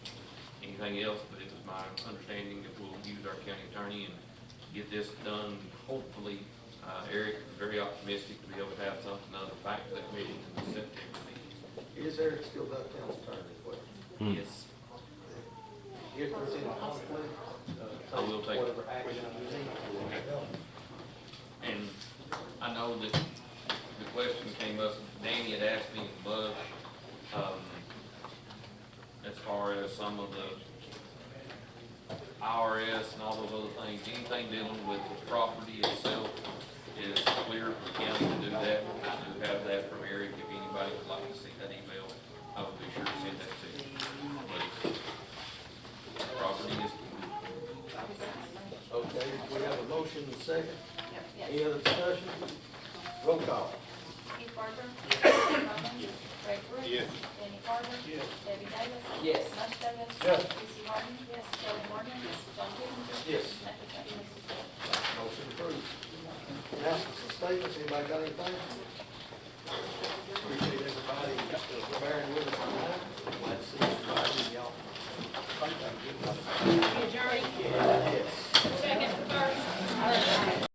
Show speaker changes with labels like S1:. S1: anything else, but it was my understanding that we'll use our county attorney and get this done. Hopefully, uh, Eric is very optimistic to be able to have something other back to that meeting in the September meeting.
S2: Is Eric still not town's attorney as well?
S1: Yes,
S2: If there's any conflict,
S1: I
S2: uh,
S1: will
S2: take
S1: take it.
S2: whatever action you need.
S1: and I know that the question came up, Danny had asked me and Bud, um, as far as some of the IRS and all those other things, anything dealing with the property itself is clear for the county to do that. I do have that from Eric, if anybody would like to see that email, I would be sure to send that to you. But Property is,
S2: Okay, we have a motion and a second. Any other discussion? Roll call.
S3: Keith Parker. Gary Holman. Ray Brooks. Danny Carver. Debbie Davis.
S4: Yes.
S3: Les Davis.
S2: Yes.
S3: Lucy Harden. Yes. Kelly Morgan. John Givens.
S2: Yes.
S3: Matthew Trent.
S2: Motion approved. Announcements and statements, anybody got anything?